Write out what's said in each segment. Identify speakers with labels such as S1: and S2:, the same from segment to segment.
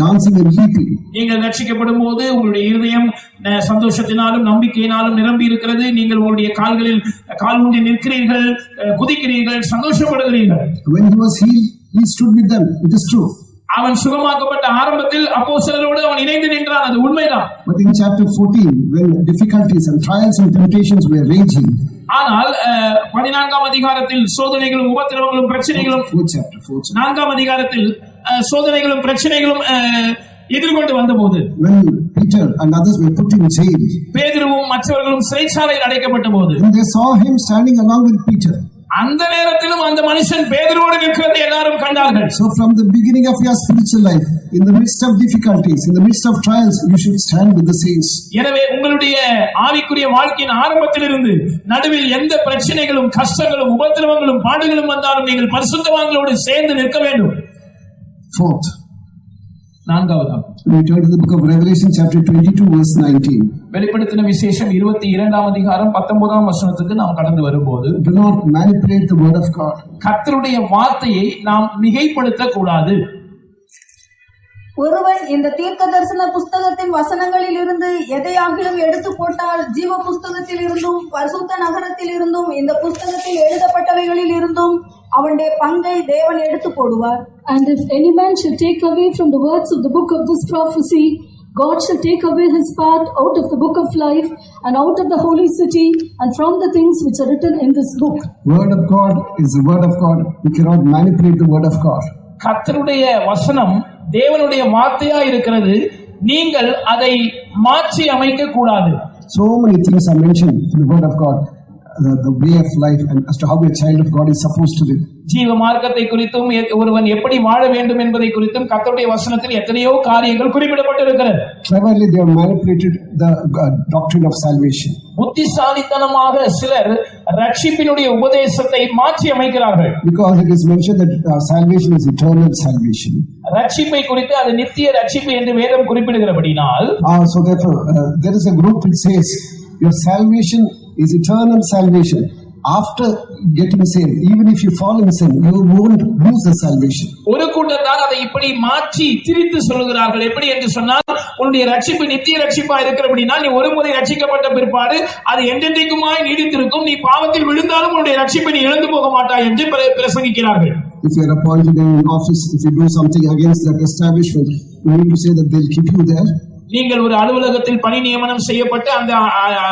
S1: dancing and leaping.
S2: நீங்கள் ரட்சிக்கப்படும் போது உங்களுடைய இருதயம் அஹ், சந்தோஷத்தினாலும் நம்பிக்கையினாலும் நிரம்பி இருக்கிறது நீங்கள் உங்களுடைய கால்களில் கால் ஊன்றி நிற்கிறீர்கள் அஹ், குதிக்கிறீர்கள் சந்தோஷப்படுகிறீர்கள்
S1: When he was healed, he stood with them. It is true.
S2: அவன் சுகமாக்கப்பட்ட ஆரம்பத்தில் அப்போ அவன் இணைந்து நின்றான் அது உண்மைதான்
S1: But in chapter 14, when difficulties and trials and temptations were raging,
S2: ஆனால் அஹ், பதினான்காம் அதிகாரத்தில் சோதனைகளும் உபத்திரவங்களும் பிரச்சனைகளும்
S1: fourth chapter, fourth chapter,
S2: நான்காம் அதிகாரத்தில் அஹ், சோதனைகளும் பிரச்சனைகளும் அஹ், எதிர்கொண்டு வந்தபோது
S1: when Peter and others were put in jail,
S2: பேதுருவும் மற்றவர்களும் சிறைச்சாலையில் அடைக்கப்பட்ட போது
S1: and they saw him standing along with Peter.
S2: அந்த நேரத்திலும் அந்த மனுஷன் பேதுருவோடு நிற்கிறதை எல்லாரும் கண்டார்கள்
S1: So from the beginning of your spiritual life, in the midst of difficulties, in the midst of trials, you should stand with the saints.
S2: எனவே உங்களுடைய ஆவிக்குரிய வாழ்க்கையின் ஆரம்பத்திலிருந்து நடுவில் எந்த பிரச்சனைகளும் கஷ்டங்களும் உபத்திரவங்களும் பாடுகளும் வந்தாலும் நீங்கள் பரிசுத்தவான்களோடு சேர்ந்து நிற்க வேண்டும்
S1: Fourth,
S2: நான்காவதாம்
S1: we turn to the book of Revelation, chapter 22, verse 19.
S2: வெளிப்படுத்தின விசேஷம் இருபத்தி இரண்டாம் அதிகாரம் பத்தொன்பதாம் வசனத்துக்கு நாம் கடந்து வரும்போது
S1: Do not manipulate the word of God.
S2: கர்த்தருடைய வார்த்தையை நாம் மிகைப்படுத்த கூடாது
S3: ஒருவன் இந்த தீர்க்க தரிசன புஸ்தகத்தின் வசனங்களில் இருந்து எதையாகிலும் எடுத்து போட்டால் ஜீவ புஸ்தகத்தில் இருந்தும் பரிசுத்த நகரத்தில் இருந்தும் இந்த புஸ்தகத்தில் எழுதப்பட்டவைகளில் இருந்தும் அவனுடைய பங்கை தேவன் எடுத்து போடுவார்
S4: And if any man shall take away from the words of the book of this prophecy, God shall take away his part out of the book of life and out of the holy city and from the things which are written in this book.
S1: Word of God is the word of God. You cannot manipulate the word of God.
S2: கர்த்தருடைய வசனம் தேவனுடைய வார்த்தையா இருக்கிறது நீங்கள் அதை மாற்றி அமைக்க கூடாது
S1: So many things are mentioned in the word of God, the, the way of life, and as to how a child of God is supposed to live.
S2: ஜீவ மார்க்கத்தை குறித்தும் எ- ஒருவன் எப்படி வாழ வேண்டும் என்பதை குறித்தும் கர்த்தருடைய வசனத்தில் எத்தனையோ காரியங்கள் குறிப்பிடப்பட்டிருக்கிறது
S1: Cleverly, they have manipulated the uh, doctrine of salvation.
S2: புத்திசாலித்தனமாக சிலர் ரட்சிப்பினுடைய உபதேசத்தை மாற்றி அமைக்கிறார்கள்
S1: Because it is mentioned that uh, salvation is eternal salvation.
S2: ரட்சிப்பை குறித்து அது நித்திய ரட்சிப்பு என்று வேதம் குறிப்பிடுகிறபடினால்
S1: Uh, so, therefore, uh, there is a group which says your salvation is eternal salvation. After getting saved, even if you fall in sin, you won't lose the salvation.
S2: ஒரு கூட்டத்தார் அதை இப்படி மாற்றி திரித்து சொல்லுகிறார்கள் எப்படி என்று சொன்னால் உன்னுடைய ரட்சிப்பு நித்திய ரட்சிப்பா இருக்கிறபடினால் நீ ஒரு முறை ரட்சிக்கப்பட்ட பிற்பாடு அது என்றென்றைக்குமாய் நீடித்திருக்கும் நீ பாவத்தில் விழுந்தாலும் உன்னுடைய ரட்சிப்பை நீ இழந்து போக மாட்டாய் என்று பிர- பிரசங்கிக்கிறார்கள்
S1: If you are appointed in an office, if you do something against that establishment, you need to say that they'll keep you there.
S2: நீங்கள் ஒரு அலுவலகத்தில் பணி நியமனம் செய்யப்பட்டு அந்த அ, அ,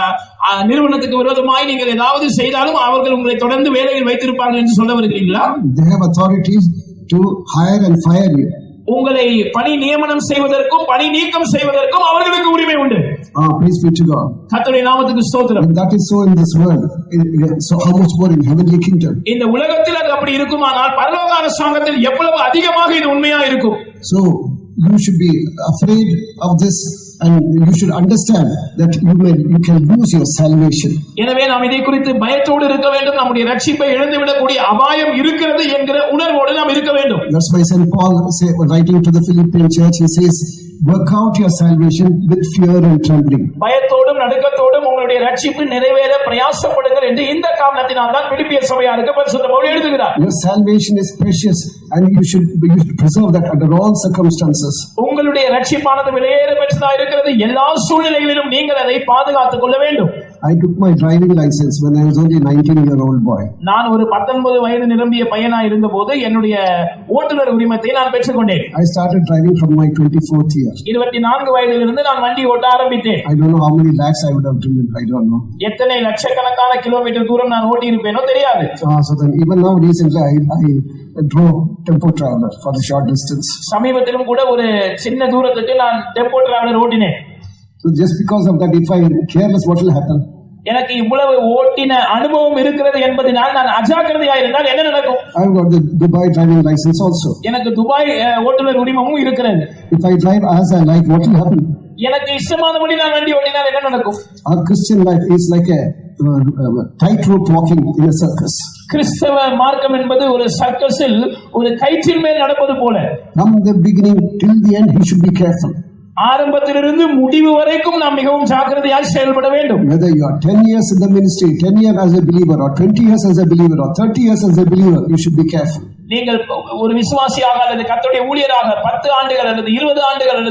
S2: அ, நிறுவனத்துக்கு விரோதமாய் நீங்கள் ஏதாவது செய்தாலும் அவர்கள் உங்களை தொடர்ந்து வேலையில் வைத்திருப்பார்கள் என்று சொல்ல வருகிறீங்களா
S1: They have authorities to hire and fire you.
S2: உங்களை பணி நியமனம் செய்வதற்கும் பணி நீக்கம் செய்வதற்கும் அவர்களுக்கு உரிமை உண்டு
S1: Ah, praise be to God.
S2: கர்த்தருடைய நாமத்துக்கு ஸ்தோத்திரம்
S1: When that is so in this world, in- so how much more in heavenly kingdom?
S2: இந்த உலகத்தில் அது அப்படி இருக்குமானால் பரலோக அரசாங்கத்தில் எவ்வளவு அதிகமாக இது உண்மையா இருக்கும்
S1: So you should be afraid of this, and you should understand that you may you can lose your salvation.
S2: எனவே நாம் இதை குறித்து பயத்தோடு இருக்க வேண்டும் நம்முடைய ரட்சிப்பை இழந்துவிடக்கூடிய அபாயம் இருக்கிறது என்கிற உணர்வோடு நாம் இருக்க வேண்டும்
S1: That's why Saint Paul say, writing to the Philippian church, he says, "Work out your salvation with fear and trembling."
S2: பயத்தோடும் நடுக்கத்தோடும் உங்களுடைய ரட்சிப்பு நிறைவேற பிரயாசப்படுங்கள் என்று இந்த காரணத்தினால் தான் விடுப்பிய சபையாருக்கு பரிசுத்த பவுல் எழுதுகிறார்
S1: Your salvation is precious, and you should you should preserve that under all circumstances.
S2: உங்களுடைய ரட்சிப்பானது விலையேற பெற்றதா இருக்கிறது எல்லா சூழ்நிலைகளிலும் நீங்கள் அதை பாதுகாத்துக் கொள்ள வேண்டும்
S1: I took my driving license when I was only a 19 year old boy.
S2: நான் ஒரு பத்தொன்பது வயது நிரம்பிய பையனா இருந்தபோது என்னுடைய ஓட்டுநர் உரிமத்தை நான் பெற்றுக்கொண்டேன்
S1: I started driving from my 24th year.
S2: இருபத்தி நான்கு வயதிலிருந்து நான் வண்டி ஓட்ட ஆரம்பித்தேன்
S1: I don't know how many lakhs I would have driven, I don't know.
S2: எத்தனை லட்சக்கணக்கான கிலோமீட்டர் தூரம் நான் ஓட்டி இருப்பேனோ தெரியாது
S1: Uh, so then, even now, recently, I, I drove tempo traveler for the short distance.
S2: சமீபத்திலும் கூட ஒரு சின்ன தூரத்துக்கு நான் டெம்போ டிராவலர் ஓட்டினேன்
S1: So just because of that, if I am careless, what will happen?
S2: எனக்கு இவ்வளவு ஓட்டின அனுபவம் இருக்கிறது என்பதனால் நான் அஜாக்கிரதையா இருந்தால் என்ன நடக்கும்
S1: I've got the Dubai driving license also.
S2: எனக்கு துபாய் அஹ், ஓட்டுநர் உரிமமும் இருக்கிறது
S1: If I drive as I like, what will happen?
S2: எனக்கு இஷ்டமானபடி நான் வண்டி ஓட்டினால் என்ன நடக்கும்
S1: Our Christian life is like a uh, uh, tightrope walking in a circus.
S2: கிறிஸ்தவ மார்க்கம் என்பது ஒரு சர்க்கஸில் ஒரு கயிற்றின் மேல் நடப்பது போல
S1: From the beginning till the end, he should be careful.
S2: ஆரம்பத்திலிருந்து முடிவு வரைக்கும் நாம் மிகவும் ஜாக்கிரதையாய் செயல்பட வேண்டும்
S1: Whether you are 10 years in the ministry, 10 years as a believer, or 20 years as a believer, or 30 years as a believer, you should be careful.
S2: நீங்கள் ஒரு விசுவாசியாக அல்லது கர்த்தருடைய ஊழியராக பத்து ஆண்டுகள் அல்லது இருபது ஆண்டுகள் அல்லது